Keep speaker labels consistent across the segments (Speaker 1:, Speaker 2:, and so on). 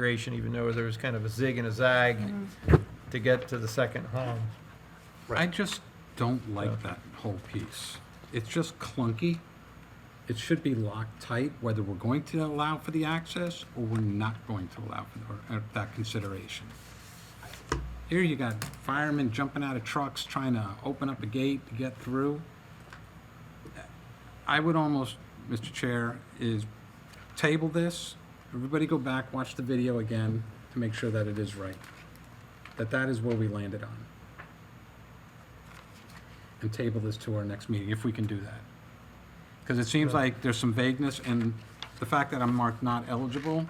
Speaker 1: configuration, even though there was kind of a zig and a zag to get to the second home.
Speaker 2: I just don't
Speaker 1: Yeah.
Speaker 2: like that whole piece. It's just clunky. It should be locked tight, whether we're going to allow for the access or we're not going to allow for or- uh, that consideration. Here you got firemen jumping out of trucks trying to open up a gate to get through. I would almost, Mr. Chair, is table this, everybody go back, watch the video again to make sure that it is right. That that is where we landed on and table this to our next meeting, if we can do that. Because it seems like there's some vagueness, and the fact that I'm marked not eligible,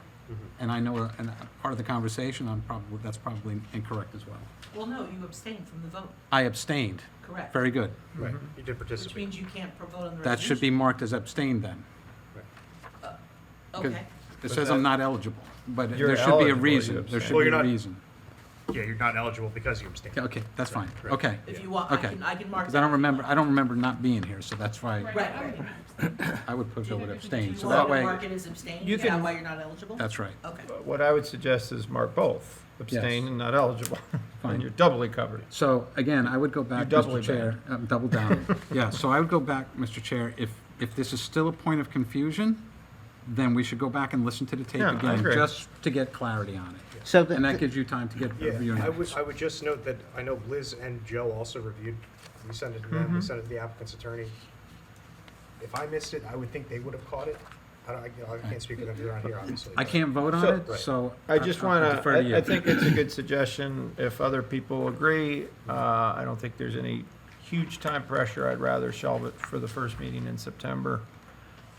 Speaker 2: and I know, uh, and uh, part of the conversation, I'm probably, that's probably incorrect as well.
Speaker 3: Well, no, you abstained from the vote,
Speaker 2: I abstained.
Speaker 3: correct?
Speaker 2: Very good.
Speaker 4: Right, you did
Speaker 3: Mm-hmm. Which
Speaker 4: participate.
Speaker 3: means you can't pro- vote on the resolution.
Speaker 2: That should be marked as abstained then.
Speaker 3: Okay,
Speaker 2: It
Speaker 1: But
Speaker 2: says I'm not eligible, but
Speaker 1: You're
Speaker 2: there should be
Speaker 1: eligible,
Speaker 2: a
Speaker 1: you
Speaker 2: reason. There should
Speaker 4: Well,
Speaker 2: be
Speaker 4: you're
Speaker 2: a
Speaker 4: not-
Speaker 2: reason.
Speaker 4: Yeah, you're not eligible because you abstained.
Speaker 2: Yeah, Okay, that's fine.
Speaker 4: Right.
Speaker 2: Okay.
Speaker 3: if you want, I
Speaker 2: Okay.
Speaker 3: can, I can mark.
Speaker 2: Because I don't remember, I don't remember not being here, so that's why
Speaker 3: Right, right.
Speaker 2: I would put forward abstain.
Speaker 3: You
Speaker 2: So
Speaker 3: want
Speaker 2: that
Speaker 3: to mark
Speaker 2: way,
Speaker 3: it as abstained,
Speaker 1: You
Speaker 3: is that
Speaker 1: can-
Speaker 3: why you're not eligible?
Speaker 2: that's right.
Speaker 3: Okay,
Speaker 1: But What I would suggest is mark both, abstain
Speaker 2: Yes.
Speaker 1: and not eligible,
Speaker 2: Fine.
Speaker 1: and you're doubly covered.
Speaker 2: So again, I would go back,
Speaker 1: You're doubly
Speaker 2: Mr. Chair. um, Double down. Yeah, so I would go back, Mr. Chair, if, if this is still a point of confusion, then we should go back and listen to the tape
Speaker 1: Yeah, I
Speaker 2: again,
Speaker 1: agree.
Speaker 2: just to get clarity on it.
Speaker 5: So
Speaker 2: And that
Speaker 5: the,
Speaker 2: gives you time to get your
Speaker 4: Yeah, I would,
Speaker 2: notes.
Speaker 4: I would just note that I know Liz and Joe also reviewed, we sent it to them,
Speaker 3: Mm-hmm.
Speaker 4: we sent it to the applicant's attorney. If I missed it, I would think they would have caught it. I don't, I, you know, I can't speak for them around here, obviously.
Speaker 2: I
Speaker 4: but-
Speaker 2: can't vote on
Speaker 1: So-
Speaker 2: it, so.
Speaker 1: I just
Speaker 2: I'll
Speaker 1: want
Speaker 2: defer to
Speaker 1: to,
Speaker 2: you.
Speaker 1: I think it's a good suggestion. If other people agree, uh, I don't think there's any huge time pressure. I'd rather shelve it for the first meeting in September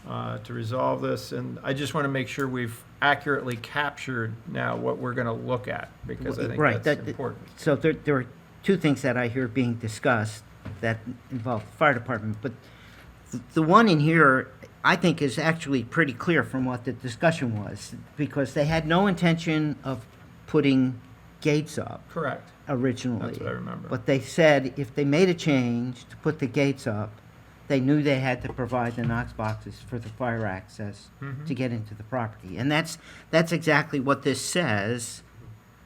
Speaker 1: uh, to resolve this. And I just want to make sure we've accurately captured now what we're going to look at, because I
Speaker 5: Right,
Speaker 1: think
Speaker 5: that-
Speaker 1: that's important.
Speaker 5: so there, there are two things that I hear being discussed that involve the fire department, but th- the one in here, I think, is actually pretty clear from what the discussion was, because they had no intention of putting gates up
Speaker 1: Correct.
Speaker 5: originally.
Speaker 1: That's what I remember.
Speaker 5: But they said if they made a change to put the gates up, they knew they had to provide the Knox boxes for the fire access
Speaker 1: Mm-hmm.
Speaker 5: to get into the property. And that's, that's exactly what this says.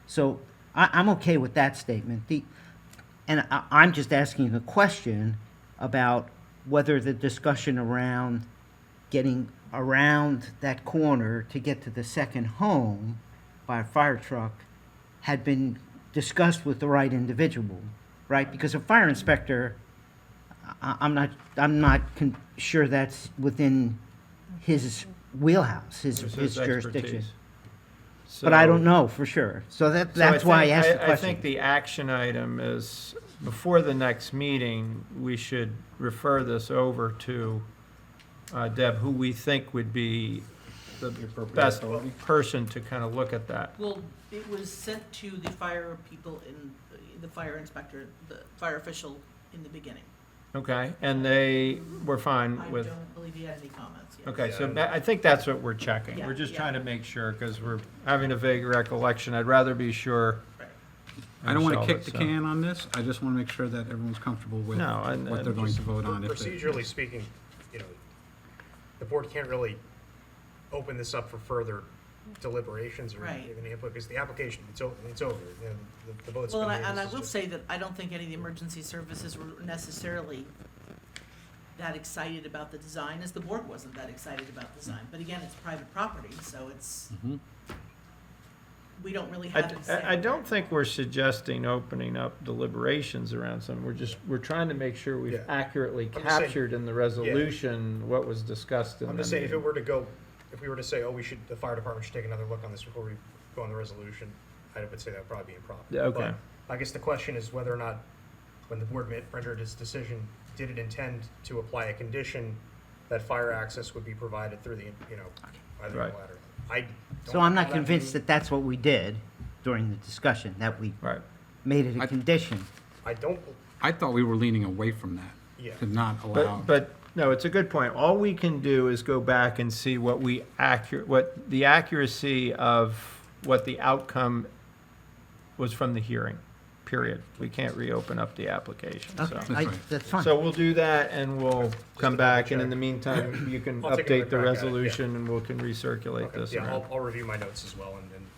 Speaker 5: So I, I'm okay with that statement. The, and I, I'm just asking the question about whether the discussion around getting around that corner to get to the second home by a fire truck had been discussed with the right individual, right? Because a fire inspector, I, I'm not, I'm not con- sure that's within his wheelhouse, his,
Speaker 1: This
Speaker 5: his
Speaker 1: is
Speaker 5: jurisdiction.
Speaker 1: expertise.
Speaker 5: But I
Speaker 1: So-
Speaker 5: don't know for sure. So that,
Speaker 1: so I
Speaker 5: that's why I
Speaker 1: think-
Speaker 5: asked the
Speaker 1: I think
Speaker 5: question.
Speaker 1: the action item is, before the next meeting, we should refer this over to uh, Deb, who we think would be the best person to kind of look at that.
Speaker 3: well, it was sent to the fire people in, the fire inspector, the fire official in the beginning.
Speaker 1: Okay, and they were
Speaker 3: I
Speaker 1: fine with,
Speaker 3: don't believe he had any comments yet.
Speaker 1: okay, so that- I think that's what we're checking.
Speaker 3: Yeah,
Speaker 1: We're just
Speaker 3: yeah.
Speaker 1: trying to make sure, because we're having a vague recollection. I'd rather be sure.
Speaker 3: Right.
Speaker 2: I don't want to
Speaker 1: myself,
Speaker 2: kick the
Speaker 1: so-
Speaker 2: can on this. I just want to make sure that everyone's comfortable with
Speaker 1: No, and-
Speaker 2: what they're
Speaker 1: and
Speaker 2: going
Speaker 1: just
Speaker 2: to vote on. if they-
Speaker 4: Procedurally speaking, you know, the board can't really open this up for further deliberations or
Speaker 3: Right.
Speaker 4: even input, because the application, it's over, it's over, you know, the, the vote's been
Speaker 3: Well, and I,
Speaker 4: made,
Speaker 3: and
Speaker 4: this
Speaker 3: I
Speaker 4: is
Speaker 3: will
Speaker 4: just-
Speaker 3: say that I don't think any of the emergency services were necessarily that excited about the design, as the board wasn't that excited about the design. But again, it's private property, so it's,
Speaker 2: Mhm.
Speaker 3: we don't really
Speaker 1: Mm-hmm. I,
Speaker 3: have to say.
Speaker 1: I- I don't think we're suggesting opening up deliberations around something. We're just, we're trying to make sure we've
Speaker 4: Yeah.
Speaker 1: accurately
Speaker 4: I'm just saying-
Speaker 1: captured in the resolution what was discussed in the
Speaker 4: I'm just saying, if it
Speaker 1: meeting.
Speaker 4: were to go, if we were to say, oh, we should, the fire department should take another look on this before we go on the resolution, I would say that would probably be improper.
Speaker 1: Yeah, okay.
Speaker 4: But I guess the question is whether or not, when the board made- rendered its decision, did it intend to apply a condition that fire access would be provided through the, you know, either
Speaker 1: Right.
Speaker 4: ladder? I don't
Speaker 5: So I'm
Speaker 4: know
Speaker 5: not convinced
Speaker 4: means-
Speaker 5: that that's what we did during the discussion, that we
Speaker 1: Right.
Speaker 5: made it
Speaker 2: I-
Speaker 5: a condition.
Speaker 4: I don't,
Speaker 2: I thought we were leaning away from
Speaker 4: Yeah.
Speaker 2: that, to not allow.
Speaker 1: But, but, no, it's a good point. All we can do is go back and see what we accurate, what the accuracy of what the outcome was from the hearing, period. We can't reopen up the application, so.
Speaker 5: Okay, I-
Speaker 2: That's right.
Speaker 5: that's fine.
Speaker 1: So we'll do that and we'll come
Speaker 4: double
Speaker 1: back and in
Speaker 4: check.
Speaker 1: the meantime, you can
Speaker 4: I'll take a
Speaker 1: update
Speaker 4: look
Speaker 1: the
Speaker 4: back at it, yeah.
Speaker 1: resolution and we'll can recirculate
Speaker 4: okay,
Speaker 1: this
Speaker 4: yeah,
Speaker 1: around.
Speaker 4: I'll, I'll review my notes as well and, and